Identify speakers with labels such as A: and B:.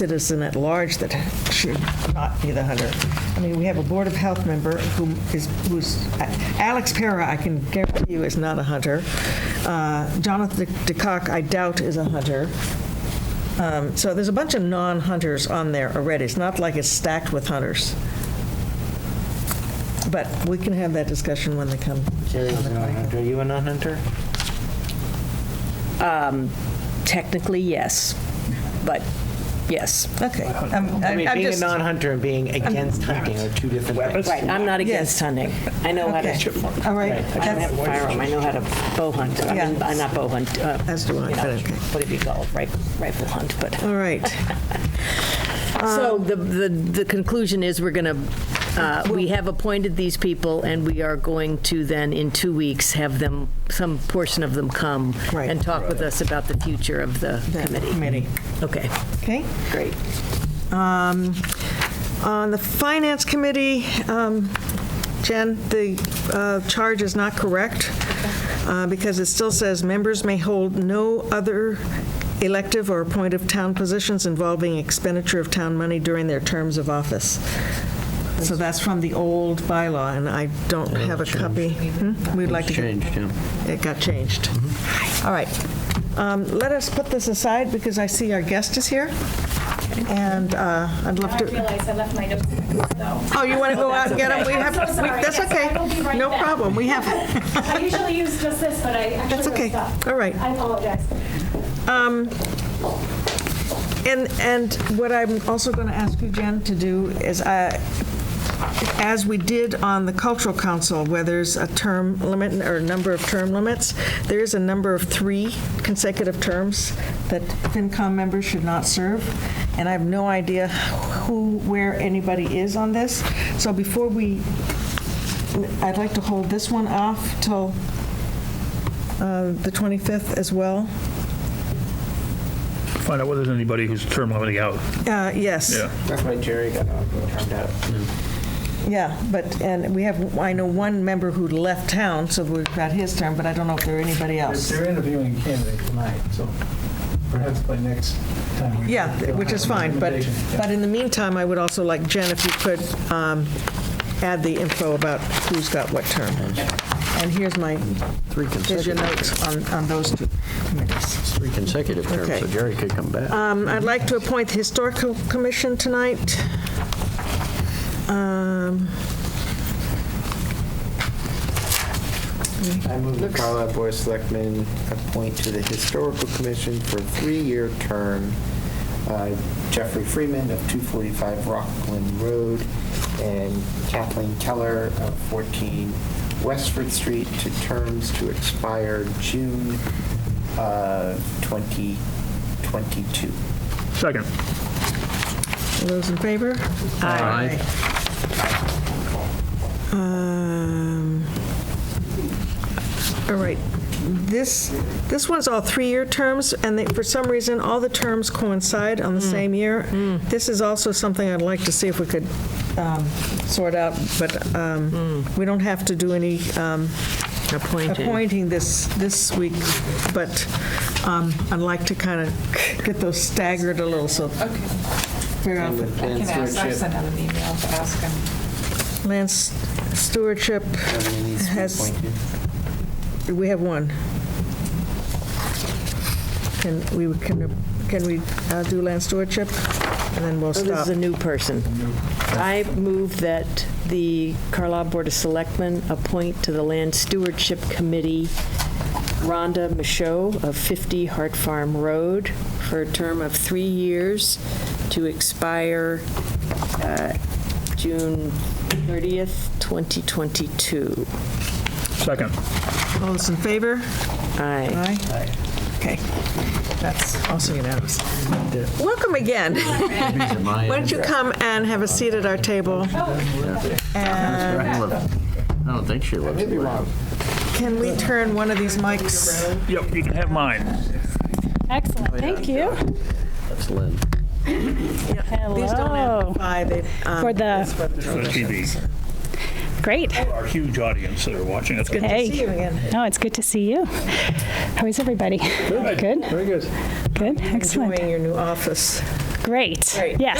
A: citizen at large that should not be the hunter. I mean, we have a Board of Health member who is, who's, Alex Para, I can guarantee you, is not a hunter. Uh, Jonathan DeCock, I doubt is a hunter. Um, So there's a bunch of non-hunters on there already. It's not like it's stacked with hunters. But we can have that discussion when they come.
B: Jerry's a non-hunter. Are you a non-hunter?
C: Technically, yes, but yes.
A: Okay. Um,
B: I mean, being a
A: just-
B: non-hunter and being against hunting are two different things.
C: Right, I'm not against
A: Yes.
C: hunting. I know how to,
A: Okay.
C: I
A: All right.
C: don't have
A: That's-
C: a firearm, I know how to bow hunt. I mean,
A: Yeah.
C: I'm not bow hunt. uh,
A: As do I,
C: you know,
A: but okay.
C: Whatever you call it, rifle rifle hunt, but.
A: All right. Uh,
D: So the, the, the conclusion is we're going to, we have appointed these people and we are going to then in two weeks have them, some portion of them come
A: Right.
D: and talk with us about the future of the committee.
A: Committee.
D: Okay.
A: Okay.
C: Great.
A: Um, On the Finance Committee, um, Jen, the uh, charge is not correct uh, because it still says members may hold no other elective or appointed town positions involving expenditure of town money during their terms of office. So that's from the old bylaw, and I don't have a copy. Hmm? We'd like to get it got changed.
E: Mm-hmm.
A: All right. Um, Let us put this aside because I see our guest is here, and uh, I'd love
E: I
A: to,
E: realized I left my notes in the car,
A: oh, you want to go out and get him? We
E: okay.
A: have.
E: I'm so
A: we-
E: sorry.
A: That's
E: Yes, I will be
A: okay.
E: right
A: No
E: back.
A: problem. We have,
E: though. I usually use just this, but I actually
A: That's okay.
E: messed up.
A: All right.
E: I apologize.
A: and, and what I'm also going to ask you, Jen, to do is, uh, as we did on the Cultural Council, where there's a term limit or a number of term limits, there is a number of three consecutive terms that FinCom members should not serve, and I have no idea who, where anybody is on this. So before we, I'd like to hold this one off till uh, the 25th as well.
F: Find out whether there's anybody who's term limiting out.
A: Uh, Yes.
F: Yeah.
B: That's why Jerry got all turned out.
A: Yeah, but, and we have, I know one member who left town, so we've got his term, but I don't know if there are anybody else.
G: They're interviewing a candidate tonight, so perhaps by next time. we-
A: Yeah, which is fine, but,
G: Yeah.
A: but in the meantime, I would also like, Jen, if you could um, add the info about who's got what term. And here's my,
H: Three
A: here's your
H: consecutive,
A: notes on, on those two committees.
H: three consecutive
A: Okay.
H: terms, so Jerry could come back.
A: Um, I'd like to appoint the Historical Commission tonight. Um,
B: I move the Carlisle Board of Selectmen appoint to the Historical Commission for a three-year term uh, Jeffrey Freeman of 245 Rockland Road and Kathleen Keller of 14 Westford Street to terms to expire June uh, 2022.
F: Second.
A: All those in favor?
H: Aye.
A: Um, All right, this, this one's all three-year terms, and they- for some reason, all the terms coincide on the same year. This is also something I'd like to see if we could um, sort out, but um, we don't have to do any um,
D: Appointed.
A: appointing this, this week, but um, I'd like to kind of get those staggered a little, so figure out
B: And with
I: I
B: planned
I: can ask, I've
B: stewardship,
I: sent out an email to ask him.
A: land stewardship
B: everyone needs to be
A: has
B: appointed.
A: We have one. Can we, can, can we uh, do land stewardship? And then we'll
D: So This
A: stop.
D: is a new person. I move that the Carlisle Board of Selectmen appoint to the Land Stewardship Committee Rhonda Michaud of 50 Hart Farm Road for a term of three years to expire uh, June 30th, 2022.
F: Second.
A: All those in favor?
D: Aye.
A: Aye. Okay. That's also unanimous. Welcome again. Why don't you come and have a seat at our table? And
H: I don't think she lives.
B: Maybe wrong.
A: can we turn one of these mics?
F: Yep, you can have mine.
E: Excellent, thank you.
H: That's Lynn.
A: These don't amplify, they, um,
E: For the,
F: For the TV.
E: great.
F: Our huge audience that are watching us.
A: see you again.
E: no, it's good to see you. How is everybody? Good?
F: Very good.
E: Good,
A: Enjoying your new office.
E: Great.
C: Great.
E: Yes.